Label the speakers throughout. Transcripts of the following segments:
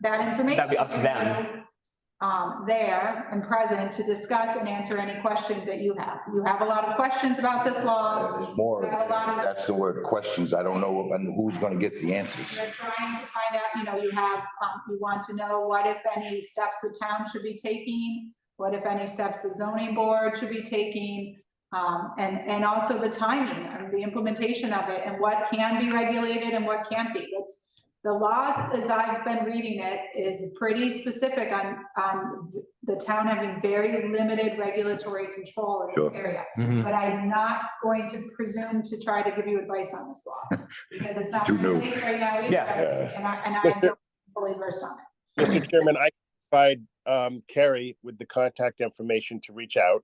Speaker 1: that information.
Speaker 2: That'd be up to them.
Speaker 1: Um, there and present to discuss and answer any questions that you have. You have a lot of questions about this law.
Speaker 3: There's more,
Speaker 1: Got a lot of-
Speaker 3: that's the word, questions. I don't know and who's gonna get the answers.
Speaker 1: You're trying to find out, you know, you have, um, you want to know what if any steps the town should be taking, what if any steps the zoning board should be taking, um, and, and also the timing and the implementation of it and what can be regulated and what can't be. That's, the laws, as I've been reading it, is pretty specific on, on the town having very limited regulatory control in this
Speaker 3: Sure.
Speaker 1: area.
Speaker 3: Hmm.
Speaker 2: Mhm.
Speaker 1: But I'm not going to presume to try to give you advice on this law, because it's not
Speaker 3: Too
Speaker 1: my
Speaker 3: new.
Speaker 1: place right now either.
Speaker 2: Yeah.
Speaker 3: Yeah.
Speaker 1: And I, and I
Speaker 4: Mister-
Speaker 1: don't fully versed on it.
Speaker 4: Mr. Chairman, I provide um Carrie with the contact information to reach out.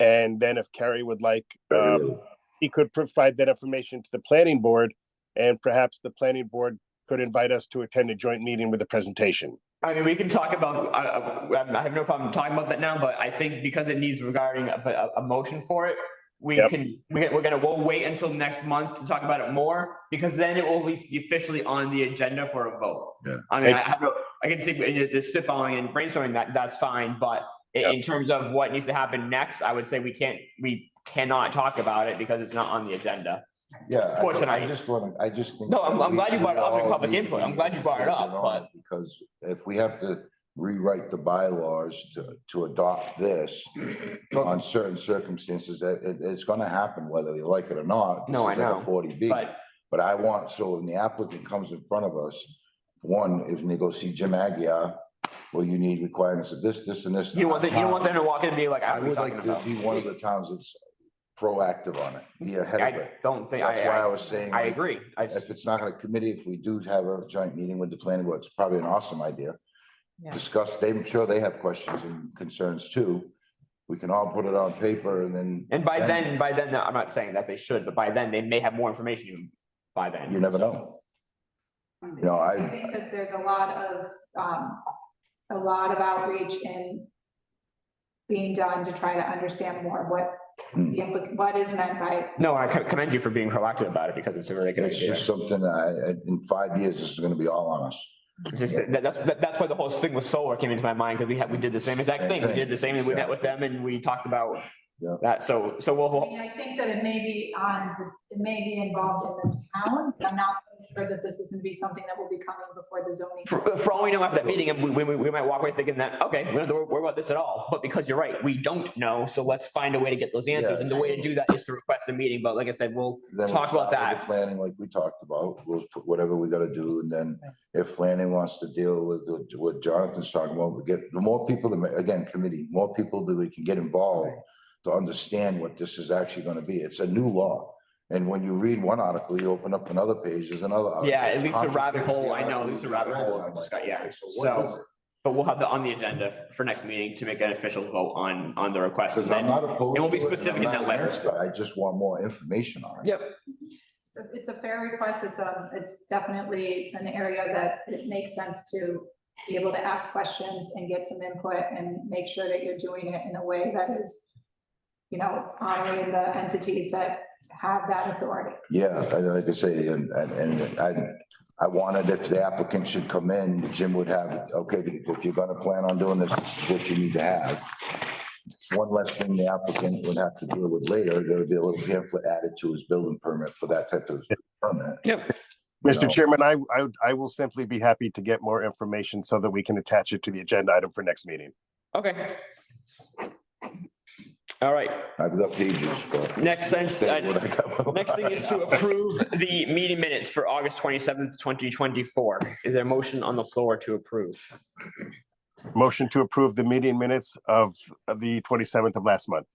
Speaker 4: And then if Carrie would like,
Speaker 3: Oh,
Speaker 4: um, he could provide that information to the planning board. And perhaps the planning board could invite us to attend a joint meeting with a presentation.
Speaker 2: I mean, we can talk about, I, I- I have no problem talking about that now, but I think because it needs regarding a, a, a motion for it, we
Speaker 4: Yep.
Speaker 2: can, we can, we're gonna, we'll wait until next month to talk about it more, because then it will at least be officially on the agenda for a vote.
Speaker 3: Yeah.
Speaker 2: I mean, I have, no- I can see, uh, the spitballing and brainstorming, that, that's fine, but in, in terms of what needs to happen next, I would say we can't, we cannot talk about it because it's not on the agenda.
Speaker 3: Yeah.
Speaker 2: For
Speaker 3: I- I
Speaker 2: tonight.
Speaker 3: just want to, I just think.
Speaker 2: No, I'm- I'm
Speaker 3: we-
Speaker 2: glad you brought it up in
Speaker 3: we all
Speaker 2: public
Speaker 3: need
Speaker 2: input.
Speaker 3: to
Speaker 2: I'm glad you brought it up,
Speaker 3: get on
Speaker 2: but-
Speaker 3: Because if we have to rewrite the bylaws to, to adopt this on certain circumstances, that it, it's gonna happen whether you like it or not. This
Speaker 2: No, I
Speaker 3: is like a
Speaker 2: know,
Speaker 3: Forty B.
Speaker 2: But,
Speaker 3: But I want, so when the applicant comes in front of us, one, if they go see Jim Agia, well, you need requirements of this, this and this.
Speaker 2: you don't want, the- you don't want them to walk in and be like,
Speaker 3: I
Speaker 2: I
Speaker 3: would
Speaker 2: was
Speaker 3: like
Speaker 2: talking
Speaker 3: to
Speaker 2: about.
Speaker 3: be one of the towns that's proactive on it, be ahead of
Speaker 2: I
Speaker 3: it.
Speaker 2: don't think,
Speaker 3: That's why I
Speaker 2: I, I,
Speaker 3: was saying.
Speaker 2: I agree. I, s-
Speaker 3: If it's not a committee, if we do have a joint meeting with the planning board, it's probably an awesome idea.
Speaker 5: Yeah.
Speaker 3: Discuss, they, I'm sure they have questions and concerns too. We can all put it on paper and then.
Speaker 2: And by then, by then, I'm not saying that they should, but by then, they may have more information even by then.
Speaker 3: You never know. You know,
Speaker 1: I
Speaker 3: I,
Speaker 1: think that there's a lot of, um, a lot of outreach and being done to try to understand more what,
Speaker 3: Hmm.
Speaker 1: the impli- what is meant by it.
Speaker 2: No, I co- commend you for being proactive about it because it's a really good
Speaker 3: it's
Speaker 2: idea.
Speaker 3: just something I, in five years, this is gonna be all on us.
Speaker 2: It's just- that- That's, that- that's why the whole thing with solar came into my mind because we had, we did the same exact
Speaker 3: Same
Speaker 2: thing. We
Speaker 3: thing.
Speaker 2: did the same and we met with them and we talked about
Speaker 3: Yeah.
Speaker 2: that. So, so
Speaker 1: I
Speaker 2: we'll,
Speaker 1: mean, I think that it may be on, the- it may be involved in the town, but I'm not sure that this is gonna be something that will be coming before the zoning.
Speaker 2: for, for all we know after that meeting, and we, we, we might walk away thinking that, okay, we don't have to worry about this at all. But because you're right, we don't know. So let's find a way to get those answers. And the way to do that is to request a meeting. But like I said, we'll,
Speaker 3: Then we'll
Speaker 2: Talk about
Speaker 3: start with
Speaker 2: that.
Speaker 3: the Planning like we talked about, we'll put whatever we gotta do, and then if planning wants to deal with with what Jonathan's talking about, we get, the more people, the ma- again, committee, more people that we can get involved to understand what this is actually gonna be. It's a new law. And when you read one article, you open up another page, there's another. article.
Speaker 2: Yeah, it leads to rabbit
Speaker 3: Contradicts the
Speaker 2: hole. I know, it
Speaker 3: article
Speaker 2: leads to
Speaker 3: we
Speaker 2: rabbit
Speaker 3: read,
Speaker 2: hole.
Speaker 3: and I'm like,
Speaker 2: Yeah.
Speaker 3: okay, So what is it?
Speaker 2: but we'll have that on the agenda for next meeting to make an official vote on, on the request.
Speaker 3: Because
Speaker 2: And
Speaker 3: I'm
Speaker 2: then
Speaker 3: not opposed.
Speaker 2: it won't be
Speaker 3: to and I'm
Speaker 2: specific in
Speaker 3: not
Speaker 2: that letter.
Speaker 3: against it. I just want more information on it.
Speaker 2: Yeah.
Speaker 1: It's a- It's a fair request. It's a, it's definitely an area that it makes sense to be able to ask questions and get some input and make sure that you're doing it in a way that is, you know, honoring the entities that have that authority.
Speaker 3: Yeah, I- like I say, and, and and I, I wanted if the applicant should come in, Jim would have, okay, if you're gonna plan on doing this, this is what you need to have. One less thing the applicant would have to deal with later, there would be a little pamphlet added to his building permit for that type of permit. No.
Speaker 4: Mr. Chairman, I, I, I will simply be happy to get more information so that we can attach it to the agenda item for next meeting.
Speaker 2: Okay. All right,
Speaker 3: I've got pages, but.
Speaker 2: next sense,
Speaker 3: Say what
Speaker 2: uh,
Speaker 3: I got.
Speaker 2: next thing is to approve the meeting minutes for August twenty seventh, twenty twenty four. Is there a motion on the floor to approve?
Speaker 4: Motion to approve the meeting minutes of of the twenty-seventh of last month.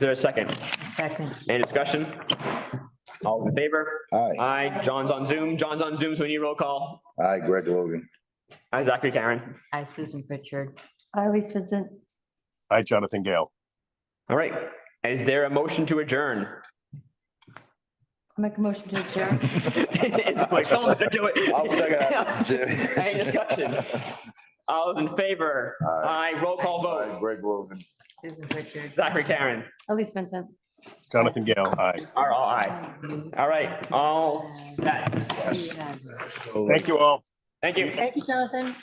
Speaker 2: Is there a second?
Speaker 5: Second.
Speaker 2: Any discussion? All in favor?
Speaker 3: Hi,
Speaker 2: Aye, John's on Zoom. John's on Zoom, so we need roll call.
Speaker 3: hi, Greg Logan.
Speaker 2: Aye, Zachary Karen.
Speaker 5: I, Susan Pritchard.
Speaker 6: I, Elise Vincent.
Speaker 4: I, Jonathan Gale.
Speaker 2: All right, is there a motion to adjourn?
Speaker 6: I Make a motion to adjourn.
Speaker 2: It's like someone's gonna do it. Any discussion?
Speaker 3: Hi,
Speaker 2: All those in favor?
Speaker 3: Aye.
Speaker 2: Aye, roll call vote.
Speaker 3: Greg Logan.
Speaker 5: Susan Pritchard.
Speaker 2: Zachary Karen
Speaker 6: Elise Vincent.
Speaker 4: Jonathan Gale, aye.
Speaker 2: are all aye. All right, all set.
Speaker 5: Yes.
Speaker 4: Thank you all.
Speaker 2: Thank you.
Speaker 6: Thank you, Jonathan.